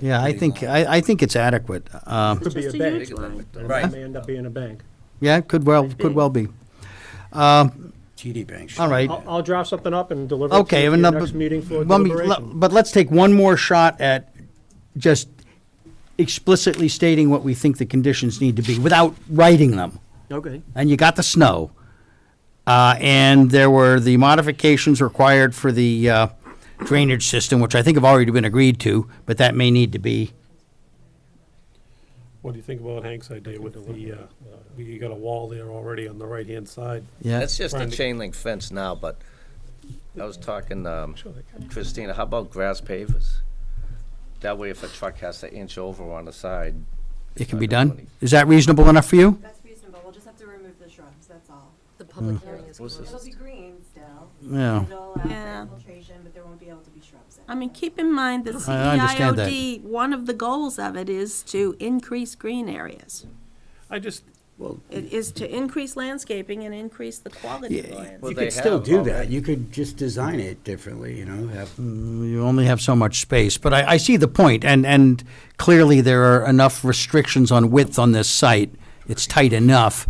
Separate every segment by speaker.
Speaker 1: Yeah, I think, uh, I, I think it's adequate. Uh,
Speaker 2: Could be a
Speaker 3: Just a
Speaker 2: bank,
Speaker 3: huge one.
Speaker 2: right?
Speaker 1: Right.
Speaker 2: It may end up being a bank.
Speaker 1: Yeah, could well, could well be.
Speaker 4: TD Bank. should-
Speaker 1: All right.
Speaker 2: I'll, I'll draft something up and deliver it to
Speaker 1: Okay.
Speaker 2: you at
Speaker 1: and
Speaker 2: your
Speaker 1: number-
Speaker 2: next meeting for
Speaker 1: let me-
Speaker 2: deliberation.
Speaker 1: But let's take one more shot at just explicitly stating what we think the conditions need to be without writing them.
Speaker 2: Okay.
Speaker 1: and you got the snow. Uh, and there were the modifications required for the uh, drainage system, which I think have already been agreed to, but that may need to be.
Speaker 5: What do you think about Hank's idea with the, uh, you got a wall there already on the right-hand side?
Speaker 1: Yeah.
Speaker 6: That's just a
Speaker 5: Right.
Speaker 6: chain link fence now, but I was talking, um, Christina, how about grass pavers? That way if a truck has to inch over on the side.
Speaker 1: It can
Speaker 6: not
Speaker 1: be
Speaker 6: gonna do
Speaker 1: done.
Speaker 6: any-
Speaker 1: Is that reasonable enough for you?
Speaker 3: That's reasonable, we'll just have to remove the shrubs, that's all.
Speaker 7: The public hearing is
Speaker 6: What's
Speaker 7: closed.
Speaker 3: It'll be green still.
Speaker 1: Yeah.
Speaker 3: It'll allow for
Speaker 7: Yeah.
Speaker 3: infiltration, but there won't be able to be shrubs
Speaker 7: I
Speaker 3: in it.
Speaker 7: mean, keep in mind that E
Speaker 1: I understand that.
Speaker 7: CEIOD, one of the goals of it is to increase green areas.
Speaker 5: I just,
Speaker 7: It is to increase landscaping and increase the quality of land.
Speaker 6: Well,
Speaker 4: You
Speaker 6: they
Speaker 4: could still
Speaker 6: have
Speaker 4: do
Speaker 6: already.
Speaker 4: that. You could just design it differently, you know, have,
Speaker 1: You only have so much space, but I, I see the point, and, and clearly there are enough restrictions on width on this site. It's tight enough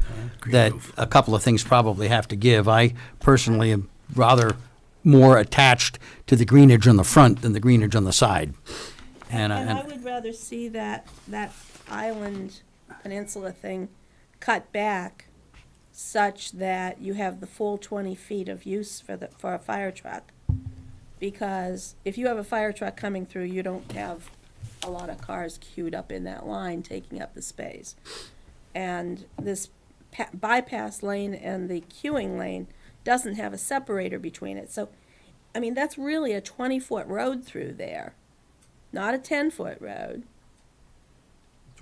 Speaker 1: that a couple of things probably have to give. I personally am rather more attached to the greenage on the front than the greenage on the side. And, I-
Speaker 7: And I
Speaker 1: and,
Speaker 7: would rather see that, that island peninsula thing cut back such that you have the full twenty feet of use for the, for a fire truck. Because if you have a fire truck coming through, you don't have a lot of cars queued up in that line taking up the space. And this pa- bypass lane and the queuing lane doesn't have a separator between it, so, I mean, that's really a twenty-foot road through there not a ten foot road.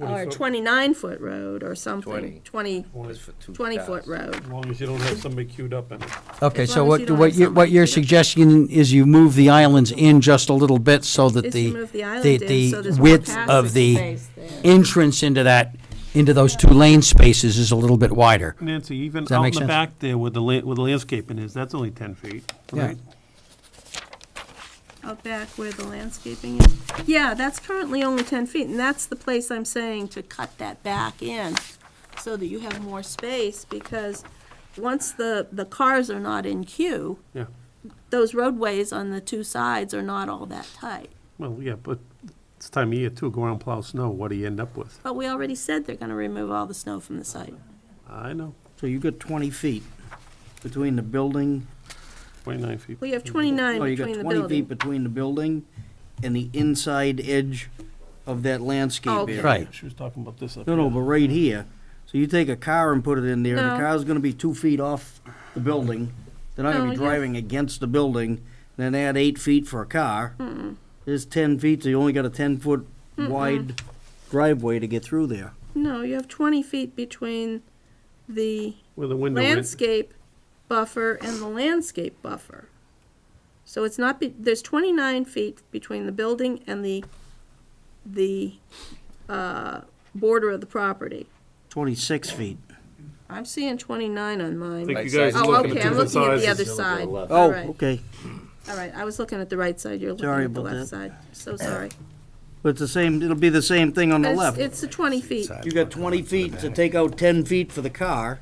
Speaker 7: Or a
Speaker 5: 20 foot.
Speaker 7: twenty nine foot road or something,
Speaker 6: 20.
Speaker 7: twenty,
Speaker 6: Just for two
Speaker 7: twenty
Speaker 6: cars.
Speaker 7: foot road.
Speaker 5: as long as you don't have somebody queued up in it.
Speaker 1: okay,
Speaker 7: as
Speaker 1: so
Speaker 7: long as you
Speaker 1: what,
Speaker 7: don't
Speaker 1: what
Speaker 7: have
Speaker 1: you, what
Speaker 7: somebody-
Speaker 1: you're suggesting is you move the islands in just a little bit so that
Speaker 7: Just
Speaker 1: the,
Speaker 7: move the island
Speaker 1: the,
Speaker 7: in so
Speaker 1: the
Speaker 7: there's more
Speaker 1: width
Speaker 7: passing
Speaker 1: of the
Speaker 7: space there.
Speaker 1: entrance into that, into those two lane spaces is a little bit wider.
Speaker 5: Nancy, even
Speaker 1: Does that
Speaker 5: out in
Speaker 1: make
Speaker 5: the
Speaker 1: sense?
Speaker 5: back there with the la, where the landscaping is, that's only ten feet,
Speaker 1: Yeah.
Speaker 5: right?
Speaker 7: Out back where the landscaping is. Yeah, that's currently only ten feet and that's the place I'm saying to cut that back in so that you have more space because once the, the cars are not in queue,
Speaker 5: Yeah,
Speaker 7: those roadways on the two sides are not all that tight.
Speaker 5: well, yeah, but it's time of year too, go around plow snow, what do you end up with?
Speaker 7: But we already said they're gonna remove all the snow from the site.
Speaker 5: I know,
Speaker 8: So you've got 20 feet between the building,
Speaker 5: twenty-nine feet.
Speaker 7: We have twenty-nine
Speaker 8: oh, you got
Speaker 7: between the
Speaker 8: 20
Speaker 7: building.
Speaker 8: feet between the building and the inside edge of that landscape
Speaker 7: Oh, okay.
Speaker 8: area.
Speaker 1: Right.
Speaker 5: She was talking about this up
Speaker 8: No, no,
Speaker 5: here.
Speaker 8: but right here, so you take a car and put it in there,
Speaker 7: No.
Speaker 8: the car's gonna be two feet off the building. They're not
Speaker 7: No,
Speaker 8: gonna be
Speaker 7: you-
Speaker 8: driving against the building, then add eight feet for a car. There's 10 feet, so you only got a 10-foot wide driveway to get through there.
Speaker 7: No, you have twenty feet between the
Speaker 5: Where the window is.
Speaker 7: landscape buffer and the landscape buffer. So it's not, be- there's twenty-nine feet between the building and the, the, uh, border of the property.
Speaker 8: 26 feet.
Speaker 7: I'm seeing twenty-nine on
Speaker 5: I
Speaker 7: mine.
Speaker 5: think
Speaker 6: Like
Speaker 5: you guys
Speaker 6: size-
Speaker 5: are
Speaker 7: Oh,
Speaker 5: looking
Speaker 7: okay,
Speaker 5: at
Speaker 7: I'm
Speaker 5: different
Speaker 7: looking at the
Speaker 5: sizes.
Speaker 7: other side. All
Speaker 8: Oh,
Speaker 7: right,
Speaker 8: okay.
Speaker 7: all right, I was looking at the right side, you're looking
Speaker 8: Sorry
Speaker 7: at the
Speaker 8: about
Speaker 7: left
Speaker 8: that.
Speaker 7: side, so sorry.
Speaker 8: But it's the same, it'll be the same thing on the
Speaker 7: It's-
Speaker 8: left.
Speaker 7: It's the twenty feet.
Speaker 8: You got twenty feet to take out ten feet for the car,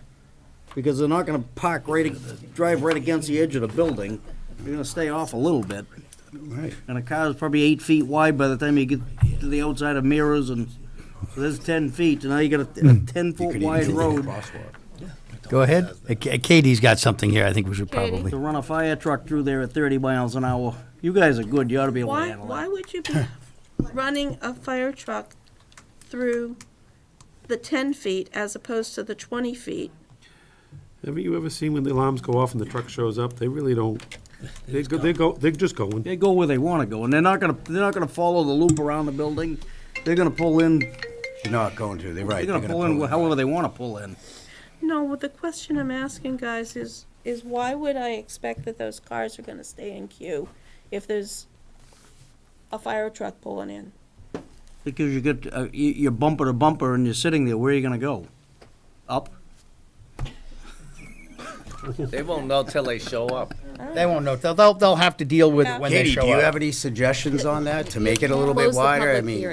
Speaker 8: because they're not gonna park right, ag- drive right against the edge of the building. You're gonna stay off a little bit,
Speaker 4: right.
Speaker 8: and a car's probably eight feet wide by the time you get to the outside of mirrors and, so there's ten feet, and now you got a- a ten-foot wide road
Speaker 1: Go ahead. Uh, Ka- Katie's got something here I think we should
Speaker 7: Katie?
Speaker 1: probably.
Speaker 8: to run a fire truck through there at thirty miles an hour. You guys are good, you ought to be able to
Speaker 7: Why,
Speaker 8: handle
Speaker 7: why
Speaker 8: that.
Speaker 7: would you be running a fire truck through the ten feet as opposed to the twenty feet?
Speaker 5: Have you ever seen when the alarms go off and the truck shows up? They really don't, they go, they go, they're just going.
Speaker 8: They go where they wanna go, and they're not gonna, they're not gonna follow the loop around the building. They're gonna pull in,
Speaker 4: You're not going to, they're right.
Speaker 8: they're gonna pull in however they wanna pull in.
Speaker 7: No, well, the question I'm asking, guys, is, is why would I expect that those cars are gonna stay in queue if there's a fire truck pulling in?
Speaker 8: Because you get, uh, y- you're bumper to bumper and you're sitting there, where are you gonna go? Up?
Speaker 6: They won't know till they show up.
Speaker 1: They won't know. They'll, they'll, they'll have to deal with it when they
Speaker 4: Katie,
Speaker 1: show
Speaker 4: do you
Speaker 1: up.
Speaker 4: have any suggestions on that to make it a little
Speaker 9: Close
Speaker 4: bit
Speaker 9: the
Speaker 4: wider? I
Speaker 9: public
Speaker 4: mean,
Speaker 9: hearing.